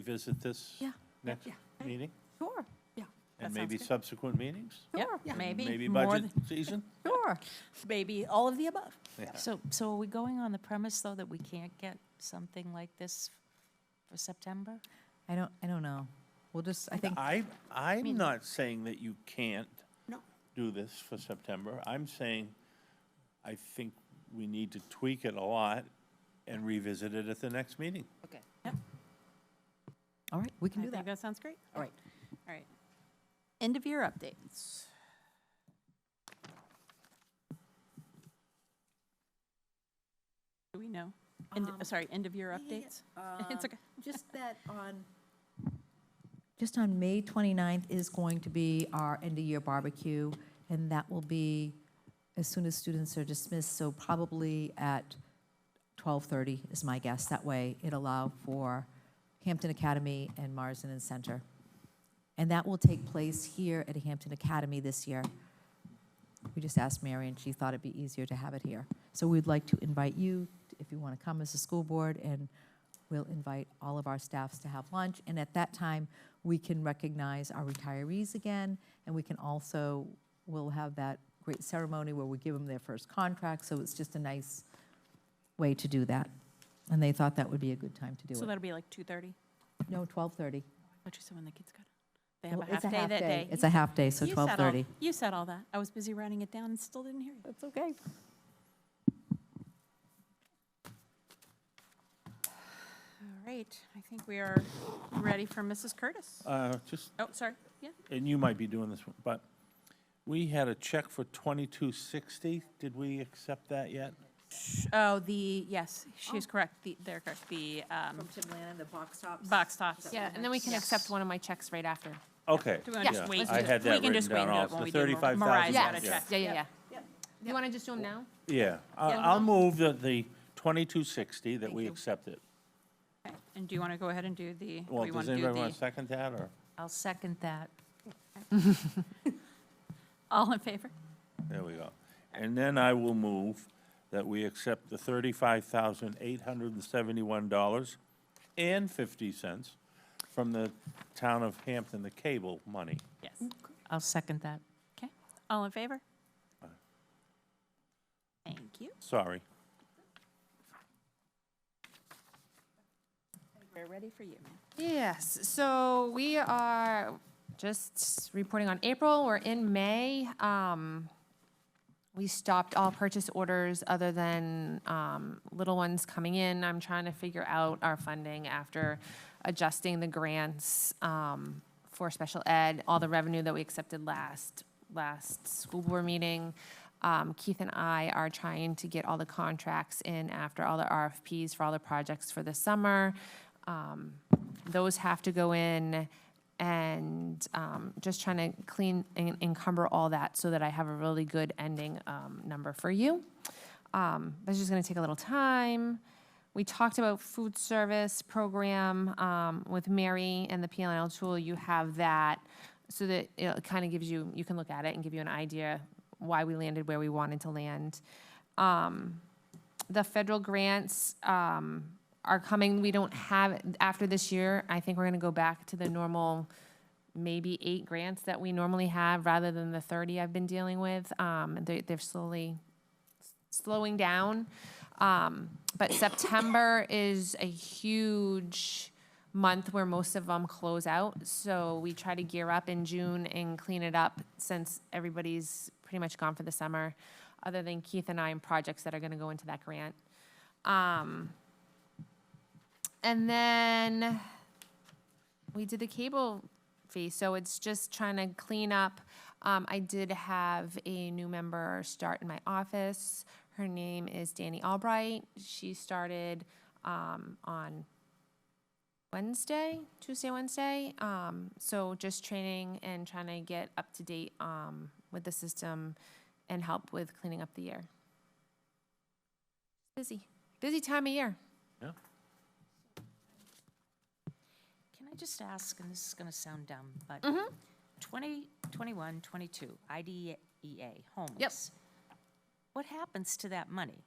revisit this Yeah. next Yeah. meeting? Sure, yeah. And maybe subsequent meetings? Yep, Sure, yeah. maybe. Maybe more budget than- season? Sure, maybe all of the above. Yeah. So, so are we going on the premise, though, that we can't get something like this for September? I don't, I don't know. We'll just, I think, I, I'm not saying that you can't No. do this for September. I'm saying I think we need to tweak it a lot and revisit it at the next meeting. Okay. all right, we can I do think that. that sounds great. All right. All right. End of year updates. Do we know? End, Um, sorry, end of year yeah, yeah, yeah. updates? It's Um, okay. Just that on, Just on May 29th is going to be our end-of-year barbecue, and that will be as soon as students are dismissed, so probably at 12:30 is my guess. That way, it allow for Hampton Academy and Marsden and Center. And that will take place here at Hampton Academy this year. We just asked Mary, and she thought it'd be easier to have it here. So we'd like to invite you, if you want to come as a school board, and we'll invite all of our staffs to have lunch. And at that time, we can recognize our retirees again, and we can also, we'll have that great ceremony where we give them their first contract, so it's just a nice way to do that. And they thought that would be a good time to do So it. that'll be like 2:30? No, 12:30. What you said when the kids got, they have Well, a half it's day that day. It's You a half day, so said- you said all- 12:30. You said all that. I was busy writing it down and still didn't hear you. That's okay. All right, I think we are ready for Mrs. Curtis. Uh, just, Oh, sorry, yeah. and you might be doing this, one, but we had a check for twenty-two sixty. Did we accept that yet? Oh, the, yes, she is Oh. correct, the, they're correct, the um, from Tim Lannon, the box tops. box tops. Yeah, and then we can accept one of my checks right after. Okay. Do we wanna yeah, just wait? I had We that can written just wait and down do it also. The when we do Mar- thirty-five Mariah's thousand. got a Yes. check. Yeah, yeah, yeah. Yep. You want to just do them now? Yeah, I- Yeah. I'll move that the 2260, that we you. accept it. Okay, And do you want to go ahead and do the, do Well, we want does to do anybody want the, to second that, or? I'll second that. all in favor? There we go. And then I will move that we accept the $35,871.50 from the town of Hampton, the cable money. Yes. I'll second that. Okay, all in favor? Thank you. Sorry. We're ready for you, ma'am. Yes, so we are just reporting on April, we're in May. Um, We stopped all purchase orders other than um, little ones coming in. I'm trying to figure out our funding after adjusting the grants um, for special ed, all the revenue that we accepted last, last school board meeting. Um, Keith and I are trying to get all the contracts in after all the RFPs for all the projects for the summer. Um, Those have to go in and um, just trying to clean and encumber all that so that I have a really good ending um, number for you. Um, but It's just going to take a little time. We talked about food service program um, with Mary and the PLNL tool. You have that so that it kind of gives you, you can look at it and give you an idea why we landed where we wanted to land. Um, the federal grants um, are coming. We don't have, after this year, I think we're going to go back to the normal, maybe eight grants that we normally have, rather than the 30 I've been dealing with. Um, they- They're slowly slowing down. Um, But September is a huge month where most of them close out. So we try to gear up in June and clean it up since everybody's pretty much gone for the summer, other than Keith and I and projects that are going to go into that grant. Um, And then we did the cable fee, so it's just trying to clean up. Um, I did have a new member start in my office. Her name is Danny Albright. She started, um, on Wednesday, Tuesday, Wednesday. Um, so just training and trying to get up to date, um, with the system and help with cleaning up the year. Busy, busy time of year. Can I just ask, and this is going to sound dumb, but 20, 21, 22, IDEA, homeless. What happens to that money?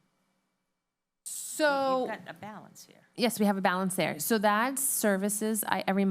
So, You've got a balance here. yes, we have a balance there. So that's services, I, every